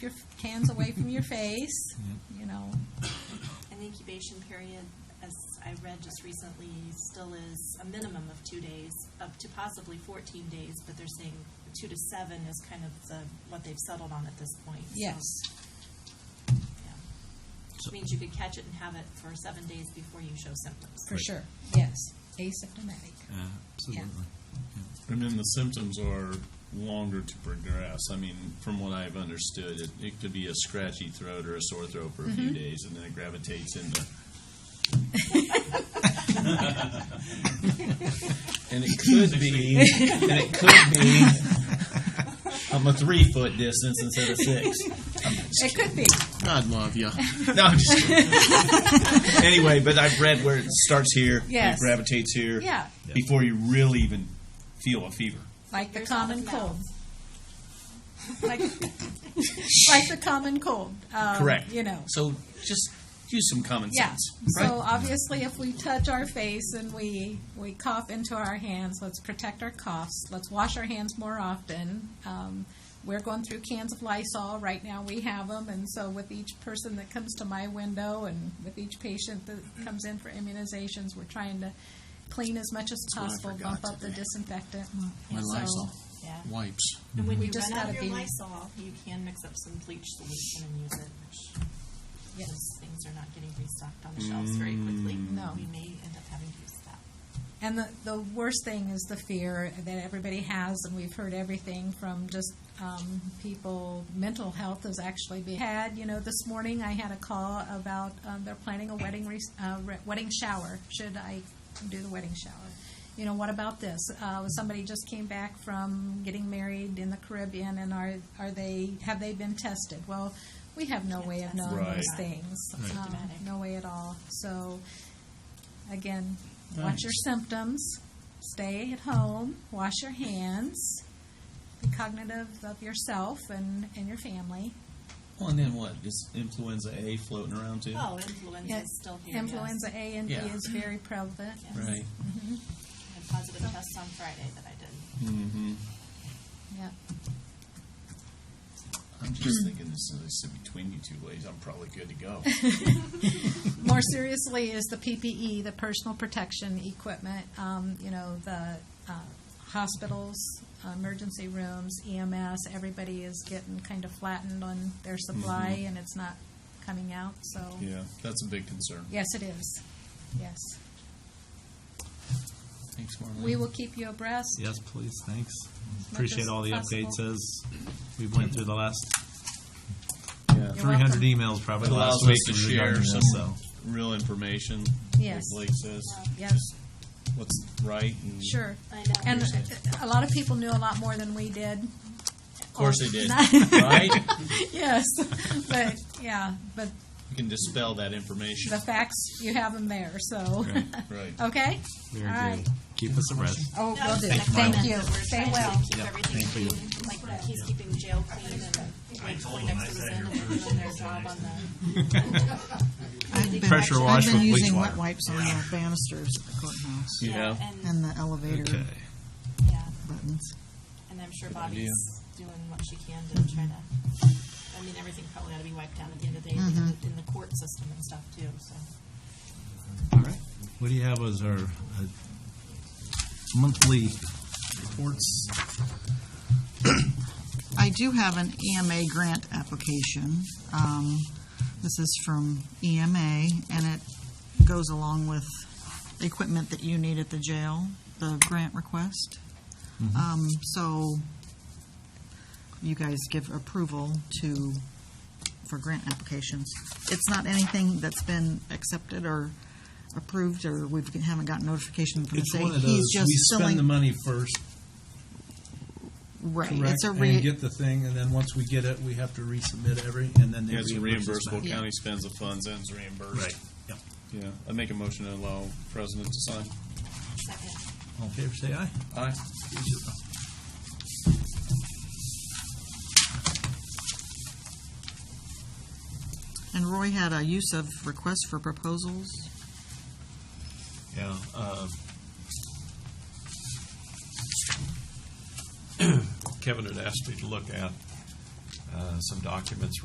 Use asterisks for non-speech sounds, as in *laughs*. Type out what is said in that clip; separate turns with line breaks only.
your hands away from your face, you know.
And the incubation period, as I read just recently, still is a minimum of two days, up to possibly 14 days, but they're saying two to seven is kind of the, what they've settled on at this point. So,
Yes,
yeah. Which means you could catch it and have it for seven days before you show symptoms.
for
Right.
sure. Yes, asymptomatic.
Uh,
Absolutely.
And then the symptoms are longer to progress. I mean, from what I've understood, it, it could be a scratchy throat or a sore throat for a
Mm-hmm.
few days, and then it
*laughs*
gravitates into. and it could be, and it could be, I'm a three foot distance instead of six.
It could be.
God love you. *laughs* No, I'm just kidding. anyway, but I've read where it starts here,
Yes.
it gravitates here,
Yeah.
before you really even feel a fever.
Like the
Fingers out
common
of
cold.
mouth.
Like, *laughs* like the common cold. um,
Correct.
You know.
So just use some common
Yeah.
sense.
So obviously, if we touch our face and we, we cough into our hands, let's protect our coughs. Let's wash our hands more often. Um, we're going through cans of Lysol right now. We have them, and so with each person that comes to my window, and with each patient that comes in for immunizations, we're trying to clean as much as
what I
possible,
forgot
bump up the
today.
disinfectant.
My
So-
Lysol
Yeah.
wipes.
And when
We
you
just
run out of
gotta
your
be-
Lysol, you can mix up some bleach solution and use it, which
Yes. Mm.
those things are not getting restocked on the shelves very quickly.
No.
We may end up having to use that.
And the, the worst thing is the fear that everybody has, and we've heard everything from just um, people. Mental health is actually being had. You know, this morning I had a call about um, they're planning a wedding re- uh, re- wedding shower. Should I do the wedding shower? You know, what about this? Uh, somebody just came back from getting married in the Caribbean, and are are they have they been tested? Well, we have no way of knowing
Right.
those things. Um, no way at all. So again, watch your symptoms, stay at home, wash your hands, be cognitive of yourself and, and your family.
Well, and then what? Is influenza A floating around too?
Oh, influenza is still here. yes.
Influenza A and B
Yeah.
is very prevalent.
Yes.
Right.
I had positive tests on Friday that I did.
Mm-hmm.
Yeah.
I'm just thinking this is I sit between you two ladies. I'm probably good
*laughs*
to go.
More seriously is the PPE, the personal protection equipment, um, you know, the uh, hospitals, emergency rooms, EMS, everybody is getting kind of flattened on their supply and it's not coming out, so.
Mm-hmm. yeah, that's a big concern.
Yes, it is. Yes.
Thanks, Marlene.
We will keep you abreast.
Yes, please, thanks.
as
Appreciate all the updates
possible.
as we went through the last
Yeah.
You're
three hundred e-
welcome.
emails probably
It
last
allows
week
us to share
regarding this, so.
some real information.
Yes.
Like Blake says,
Yes,
what's right. And
sure.
I know.
And uh, a lot of people knew a lot more than we did.
Of course they did. right?
*laughs* Yes, but, yeah, but
You can dispel that information.
the facts, you have them there, so,
Great.
Right.
*laughs* okay?
Very
All right.
good. Keep us abreast.
Oh,
No,
will do.
it's just a
Thank
comment
you.
that we're
Stay
trying to
well.
Keep everything
thank you.
clean, like he's keeping jail clean and Mike Poindexter was in and they're doing their job on the.
I've been,
Pressure wash
I've been
with bleach
using
water.
wet wipes on the banisters at the courthouse
You know?
And,
and the elevator
Okay.
yeah,
buttons.
and I'm sure Bobby's doing what she can to try to, I mean, everything probably ought to be wiped down at the end of the day in
Mm-hmm.
the- in the court system and stuff too, so.
All right. What do you have as our uh, monthly reports?
I do have an EMA grant application. Um, This is from EMA, and it goes along with the equipment that you need at the jail, the grant request.
Mm-hmm.
Um, So you guys give approval to, for grant applications. It's not anything that's been accepted or approved, or we haven't gotten notification from the
It's
state.
one of those,
He's just
we spend the
filling-
money first,
Right,
correct,
it's a
and
re,
get the thing, and then once we get it, we have to resubmit every, and then they
Yeah, it's
reimburse us
reimbursable.
back.
County spends the funds and it's reimbursed.
Right, yeah.
Yeah. I make a motion to allow president to sign.
Second.
All in favor, say aye.
Aye.
and Roy had a use of request for proposals.
Yeah. *clears throat* uh, Kevin had asked me to look at uh, some documents